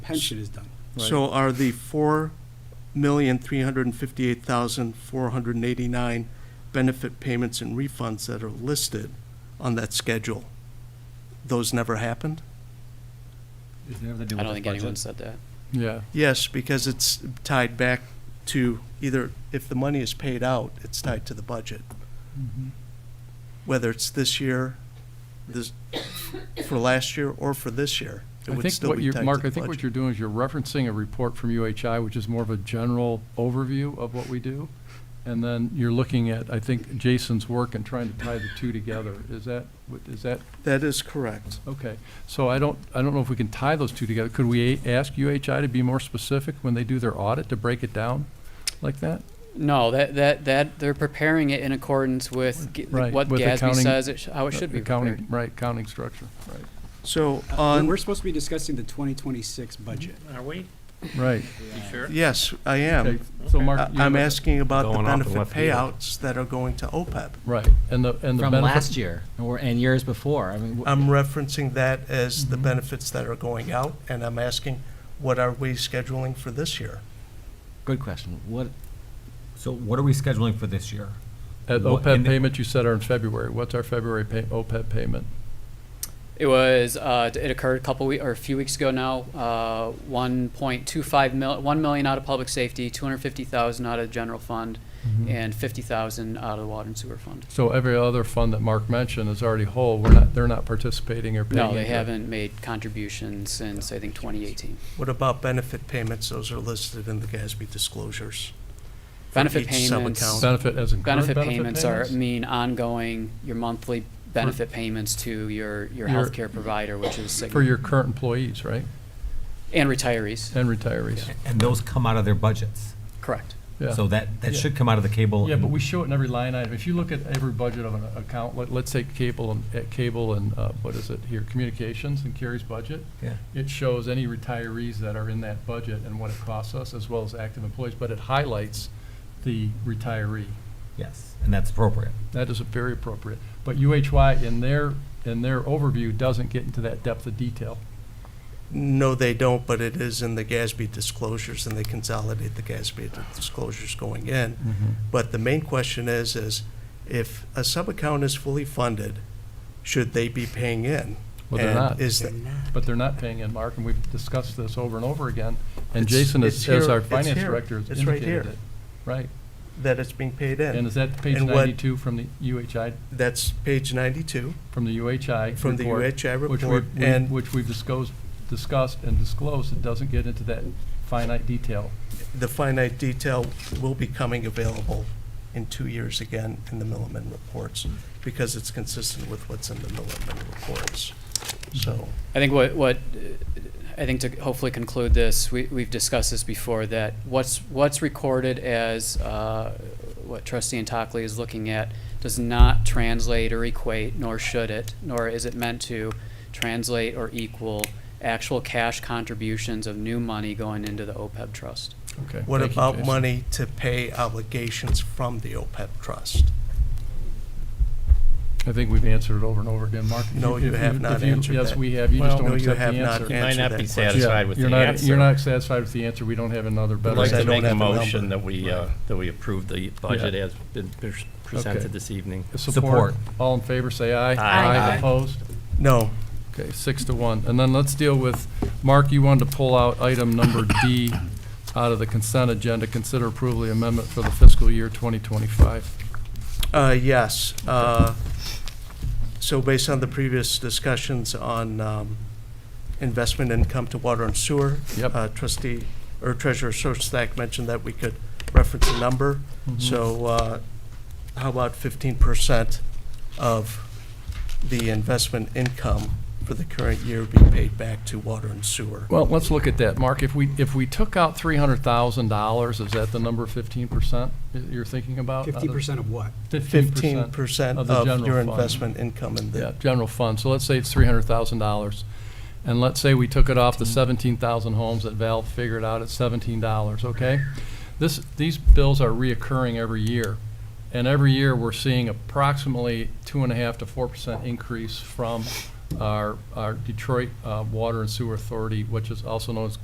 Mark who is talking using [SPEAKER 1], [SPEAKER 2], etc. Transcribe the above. [SPEAKER 1] pension is done.
[SPEAKER 2] So are the four million, three hundred and fifty-eight thousand, four hundred and eighty-nine benefit payments and refunds that are listed on that schedule, those never happened?
[SPEAKER 3] Does it have to do
[SPEAKER 4] I don't
[SPEAKER 3] with the
[SPEAKER 4] think anyone
[SPEAKER 3] budget?
[SPEAKER 4] said that.
[SPEAKER 5] Yeah,
[SPEAKER 2] Yes, because it's tied back to either, if the money is paid out, it's tied to the budget. Mm-hmm. Whether it's this year, this, for last year, or for this year, it
[SPEAKER 5] I
[SPEAKER 2] would
[SPEAKER 5] think
[SPEAKER 2] still
[SPEAKER 5] what
[SPEAKER 2] be
[SPEAKER 5] you're,
[SPEAKER 2] tied to the budget.
[SPEAKER 5] Mark, I think what you're doing is you're referencing a report from UHI, which is more of a general overview of what we do. And then you're looking at, I think, Jason's work and trying to tie the two together. Is that, what- is that,
[SPEAKER 2] That is correct.
[SPEAKER 5] okay. So I don't, I don't know if we can tie those two together. Could we a- ask UHI to be more specific when they do their audit to break it down like that?
[SPEAKER 4] No, that, that, that, they're preparing it in accordance with g-
[SPEAKER 5] Right,
[SPEAKER 4] what
[SPEAKER 5] with
[SPEAKER 4] GASB
[SPEAKER 5] accounting-
[SPEAKER 4] says, it sh- how Oh, it should be prepared.
[SPEAKER 5] Accounting, right, accounting structure, right,
[SPEAKER 2] So
[SPEAKER 1] Uh,
[SPEAKER 2] on.
[SPEAKER 1] We're supposed to be discussing the 2026 budget.
[SPEAKER 6] Are we?
[SPEAKER 5] right.
[SPEAKER 6] You sure?
[SPEAKER 2] Yes, I
[SPEAKER 5] Okay,
[SPEAKER 2] am.
[SPEAKER 5] So
[SPEAKER 6] Okay.
[SPEAKER 5] Mark.
[SPEAKER 2] Um, I-
[SPEAKER 5] you
[SPEAKER 2] Uh, I'm
[SPEAKER 5] have-
[SPEAKER 2] asking about the
[SPEAKER 6] Going off the
[SPEAKER 2] benefit
[SPEAKER 6] left field.
[SPEAKER 2] payouts that are going to OPEB.
[SPEAKER 5] Right, and the, and the
[SPEAKER 3] From
[SPEAKER 5] benefit-
[SPEAKER 3] last year, or, and years before, I mean, wh-
[SPEAKER 2] I'm referencing that as
[SPEAKER 5] Mm-hmm.
[SPEAKER 2] the benefits that are going out, and I'm asking, what are we scheduling for this year?
[SPEAKER 3] good question, what,
[SPEAKER 7] So what are we scheduling for this year?
[SPEAKER 5] At
[SPEAKER 7] What-
[SPEAKER 5] OPEB
[SPEAKER 7] and the-
[SPEAKER 5] payment, you said are in February. What's our February pay, OPEB payment?
[SPEAKER 4] It was, uh, it occurred a couple we, or a few weeks ago now, uh, one point two five mil, one million out of public safety, two hundred fifty thousand out of the general fund, and fifty thousand out of the water and sewer fund.
[SPEAKER 5] So every other fund that Mark mentioned is already whole. We're not, they're not participating or paying.
[SPEAKER 4] No, they
[SPEAKER 5] into it.
[SPEAKER 4] haven't made contributions since, I think, twenty eighteen.
[SPEAKER 2] What about benefit payments? Those are listed in the GASB disclosures.
[SPEAKER 4] Benefit
[SPEAKER 2] each sub-account.
[SPEAKER 4] payments,
[SPEAKER 5] Benefit as in current
[SPEAKER 4] benefit
[SPEAKER 5] benefit
[SPEAKER 4] payments are,
[SPEAKER 5] payments?
[SPEAKER 4] mean ongoing, your monthly benefit payments to your, your
[SPEAKER 5] Your-
[SPEAKER 4] healthcare provider, which is Cigna.
[SPEAKER 5] For your current employees, right?
[SPEAKER 4] And retirees.
[SPEAKER 5] And retirees.
[SPEAKER 7] And those come out of their budgets.
[SPEAKER 4] Correct.
[SPEAKER 5] Yeah.
[SPEAKER 7] So that, that
[SPEAKER 5] Yeah.
[SPEAKER 7] should come out of the cable.
[SPEAKER 5] Yeah,
[SPEAKER 7] and-
[SPEAKER 5] but we show it in every line item. If you look at every budget of an account, let, let's say cable and, at cable and, uh, what is it here, communications and Kerry's budget.
[SPEAKER 7] Yeah.
[SPEAKER 5] It shows any retirees that are in that budget and what it costs us, as well as active employees, but it highlights the retiree.
[SPEAKER 7] Yes, and that's appropriate.
[SPEAKER 5] That is very appropriate. But UHY in their, in their overview doesn't get into that depth of detail.
[SPEAKER 2] No, they don't, but it is in the GASB disclosures, and they consolidate the GASB disclosures going in. But the main question is, is if a sub-account is fully funded, should they be paying in?
[SPEAKER 5] Well, they're
[SPEAKER 2] And
[SPEAKER 5] not.
[SPEAKER 2] is the-
[SPEAKER 5] But they're not paying in, Mark, and we've discussed this over and over again. And
[SPEAKER 2] It's-
[SPEAKER 5] Jason,
[SPEAKER 2] it's
[SPEAKER 5] as, as
[SPEAKER 2] here.
[SPEAKER 5] our
[SPEAKER 2] It's
[SPEAKER 5] finance
[SPEAKER 2] here.
[SPEAKER 5] director, has
[SPEAKER 2] It's right
[SPEAKER 5] indicated
[SPEAKER 2] here.
[SPEAKER 5] it. Right.
[SPEAKER 2] that it's being paid
[SPEAKER 5] And
[SPEAKER 2] in?
[SPEAKER 5] is that page
[SPEAKER 2] And what-
[SPEAKER 5] ninety-two from the UHI,
[SPEAKER 2] That's page 92.
[SPEAKER 5] from the UHI?
[SPEAKER 2] From the
[SPEAKER 5] report,
[SPEAKER 2] UHI
[SPEAKER 5] which
[SPEAKER 2] report,
[SPEAKER 5] we've- we-
[SPEAKER 2] and-
[SPEAKER 5] Which we've discussed, discussed and disclosed, it doesn't get into that finite detail.
[SPEAKER 2] The finite detail will be coming available in two years again in the Milliman reports, because it's consistent with what's in the Milliman reports. So,
[SPEAKER 4] I think what, what, uh, I think to hopefully conclude this, we, we've discussed this before, that what's, what's recorded as, uh, what trustee Antocley is looking at does not translate or equate, nor should it, nor is it meant to translate or equal actual cash contributions of new money going into the OPEB trust.
[SPEAKER 5] Okay.
[SPEAKER 2] what
[SPEAKER 5] Thank you,
[SPEAKER 2] about
[SPEAKER 5] Jason.
[SPEAKER 2] money to pay obligations from the OPEB trust?
[SPEAKER 5] I think we've answered it over and over again, Mark. if
[SPEAKER 2] No, you
[SPEAKER 5] if
[SPEAKER 2] have not
[SPEAKER 5] if you-
[SPEAKER 2] answered
[SPEAKER 5] Yes,
[SPEAKER 2] that.
[SPEAKER 5] we have, you just
[SPEAKER 2] Well,
[SPEAKER 5] don't
[SPEAKER 2] no, you
[SPEAKER 5] accept the
[SPEAKER 2] have not
[SPEAKER 5] answer.
[SPEAKER 2] answer
[SPEAKER 6] Might not
[SPEAKER 2] that
[SPEAKER 6] be
[SPEAKER 2] question.
[SPEAKER 6] satisfied with
[SPEAKER 5] You're
[SPEAKER 6] the
[SPEAKER 5] not, you're
[SPEAKER 6] answer. I'd
[SPEAKER 5] not satisfied with the answer, we don't have another better
[SPEAKER 6] like
[SPEAKER 2] Because I
[SPEAKER 5] answer.
[SPEAKER 6] to
[SPEAKER 2] don't
[SPEAKER 6] make a
[SPEAKER 2] have the
[SPEAKER 6] motion
[SPEAKER 2] number.
[SPEAKER 6] that we, uh, that we approve the budget as been pres-
[SPEAKER 5] Okay.
[SPEAKER 6] presented this evening.
[SPEAKER 5] Support,
[SPEAKER 7] Support.
[SPEAKER 5] all in favor, say aye.
[SPEAKER 6] Aye.
[SPEAKER 5] Aye opposed?
[SPEAKER 2] No,
[SPEAKER 5] Okay, six to one. And then let's deal with, Mark, you wanted to pull out item number D out of the consent agenda, consider approval of the amendment for the fiscal year 2025.
[SPEAKER 2] Uh, Yes. Uh, So based on the previous discussions on um, investment income to water and sewer,
[SPEAKER 5] Yep.
[SPEAKER 2] uh, trustee, or treasurer Stack mentioned that we could reference a number.
[SPEAKER 5] Mm-hmm.
[SPEAKER 2] So uh, how about 15% of the investment income for the current year be paid back to water and sewer?
[SPEAKER 5] Well, let's look at that. Mark, if we, if we took out $300,000, is that the number 15% that you're thinking about?
[SPEAKER 1] 50% of what?
[SPEAKER 2] 15%
[SPEAKER 5] of the
[SPEAKER 2] of
[SPEAKER 5] general
[SPEAKER 2] your
[SPEAKER 5] fund.
[SPEAKER 2] investment income in
[SPEAKER 5] Yeah,
[SPEAKER 2] the,
[SPEAKER 5] general fund, so let's say it's three hundred thousand dollars. And let's say we took it off the seventeen thousand homes that Val figured out at seventeen dollars, okay? This, these bills are reoccurring every year, and every year we're seeing approximately two and a half to four percent increase from our, our Detroit uh, Water and Sewer Authority, which is also known as